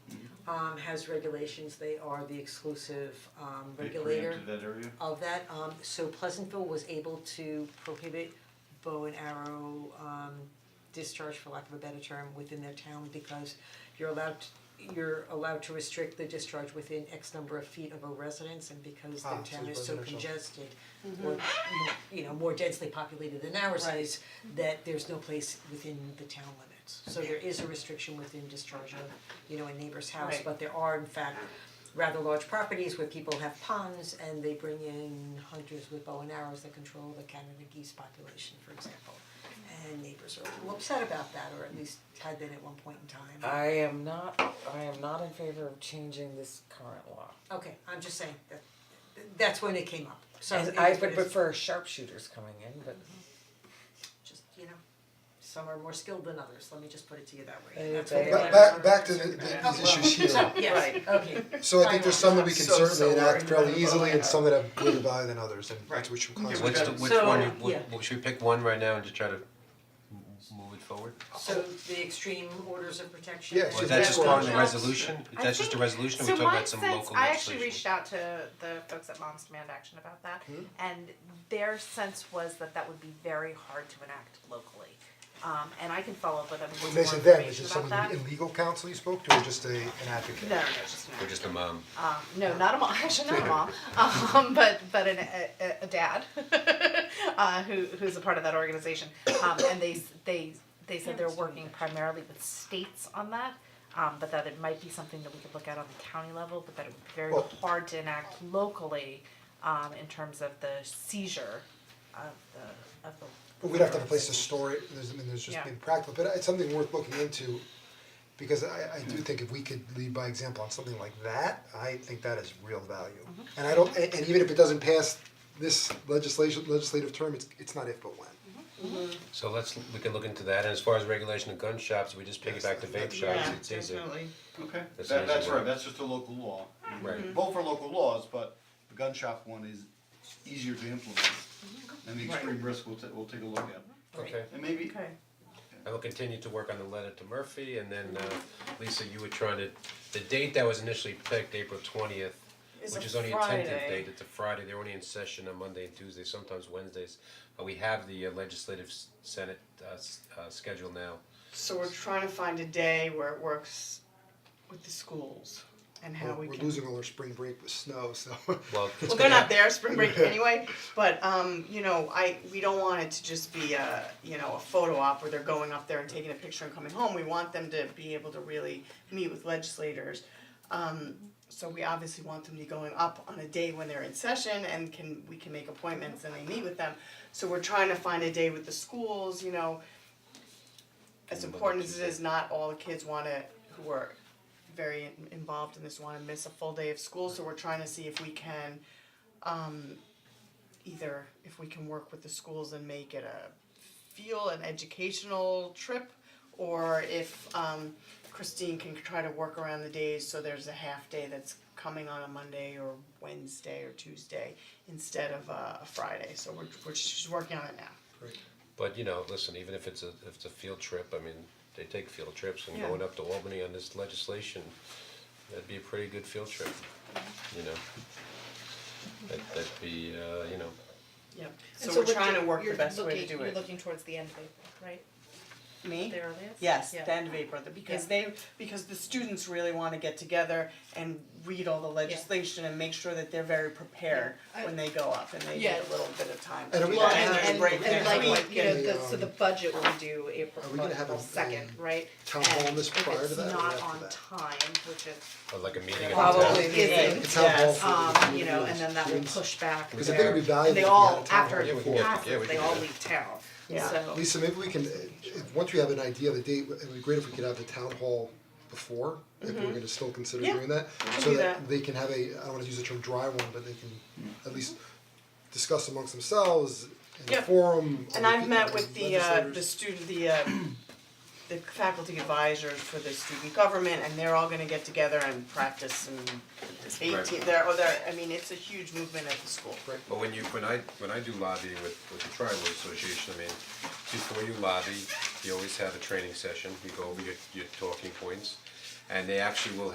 um has regulations, they are the exclusive um They regulator preempted that area? of that, um so Pleasantville was able to prohibit bow and arrow um discharge for lack of a better term within their town because you're allowed to you're allowed to restrict the discharge within X number of feet of a residence and because their Ah, so town it's is so residential. congested or more, you know, more densely populated than ours is, that there's no place within the town limits. So there is a restriction within discharge of, you know, a neighbor's house, Right. but there are in fact rather large properties where people have ponds and they bring in hunters with bow and arrows that control the Canada geese population, for example. And neighbors are a little upset about that, or at least had been at one point in time. I am not, I am not in favor of changing this current law. Okay, I'm just saying that, that's when it came up, so. And it I is what would it is. prefer sharpshooters coming in, but just, you know, some are more skilled than others, let me just put it to you that way, Hey, that's what they babe. Back Right. back learned. back to the the- these issues here, So, yes, okay, so I think there's some that we can So- so certainly enact worried fairly about easily and that. some that have greater value than others and that's what should Okay, classify. what's the, got- which so, one, yeah. what, what- should we pick one right now and just try to m- move it forward? so the extreme orders of protection. Yeah, and- Or is should that that's just what part of I the was- resolution, I that's just a think- resolution, or we So talk my about some sense, local legislation? Hmm? I actually reached out to the folks at Moms Demand Action about that, and their sense was that that would be very hard to enact locally. Um, and I can follow up with them with When more they said them, is information it about someone that. in legal counsel you spoke to or just a an advocate? No, no, no, just an Or just a mom, Um, no, not a mom. Actually, not a mom. Um, but but an, a- a, a dad uh, who who's a part of that organization. Um, and they s- they they said they're working primarily with states on that. Um, but that it might be something that we could look at on the county level, but that it would be very Well- hard to enact locally um, in terms of the seizure of the of the. But we'd have to have a place to store it, there's, I mean, there's just Yeah. being practical, but it's something worth looking into. Because I, I do think if we could lead by example on something like that, I think that is real value. Mm-hmm. And I don't, and, and even if it doesn't pass this legislation, legislative term, it's, it's not if but when. so let's, we can look into that, and as far as regulation of gun shops, we just Yes, piggyback to vape that's- shops, it's easy. Okay, That's that, an that's easy right, one. that's just a local law. You Right. can Vote for local laws, but the gun shop one is easier to implement. And the extreme risk we'll ta- we'll take a look at. Okay, And maybe, Okay. I will continue to work on the letter to Murphy, and then, uh, Lisa, you were trying to, the date that was initially picked, April twentieth, It's which a is only a tentative Friday. date, it's a Friday, they're only in session on Monday and Tuesday, sometimes Wednesdays. Uh, we have the uh, legislative s- senate, uh, s- uh, schedule now. So we're trying to find a day where it works with the schools and how We're- we can. We're losing all our spring break with snow, so. Well, Well, they're not there spring break anyway, but um, you know, I, we don't want it to just be a, you know, a photo op where they're going up there and taking a picture and coming home. We want them to be able to really meet with legislators. Um, so we obviously want them to be going up on a day when they're in session and can, we can make appointments and they meet with them. So we're trying to find a day with the schools, you know, as important as it is, not all the kids wanna, who are very in- involved in this, wanna miss a full day of school, so we're trying to see if we can, um, either, if we can work with the schools and make it a feel an educational trip, or if, um, Christine can try to work around the days, so there's a half day that's coming on a Monday or Wednesday or Tuesday instead of a, a Friday, so we're, we're, she's working on it now. But you know, listen, even if it's a, if it's a field trip, I mean, they take field trips and Yeah. going up to Albany on this legislation, that'd be a pretty good field trip, you know? That, that'd be, uh, you know, Yep, so we're trying to work the best way to do it. You're looking towards the end of April, right? Me? The earliest? Yes, Yeah. the end of April, the- Yeah. because they, because the students really wanna get together and read all the legislation and make sure that they're very prepared I- when they go up and they Yeah. get a little bit of time to And are do we that, gonna and have- there's a break And and next like, week. you know, the um, so the budget will be due April are we gonna have a, second, um, right? town hall And this prior to that If or it's not after on that? time, which it or like a meeting at the town. probably yeah. It's isn't, how Yes, all food um, is. you know, and then that will Yes. push back Because I think it'd be their, and valuable they if we had all, a town after hall. Yeah, we it can get- yeah, we passes, can they do all that. leave town, Yeah. so. Lisa, maybe we can, uh, if, once we have an idea of the date, it would be great if we could have the town hall before, if we're gonna still consider Mm-hmm. Yeah, doing that. can So do that that. they can have a, I don't wanna use the term dry one, but they can at least discuss amongst themselves in a Yep. forum. And other I've people, met with the uh legislators. the student, the uh the faculty advisors for the student government and they're all gonna get together and practice and eighteen, they're, oh, they're, I mean, it's a huge movement at the school. But when you, when I, when I do lobbying with, with the tribal association, I mean, before you lobby, you always have a training session, you go over your, your talking points. And they actually will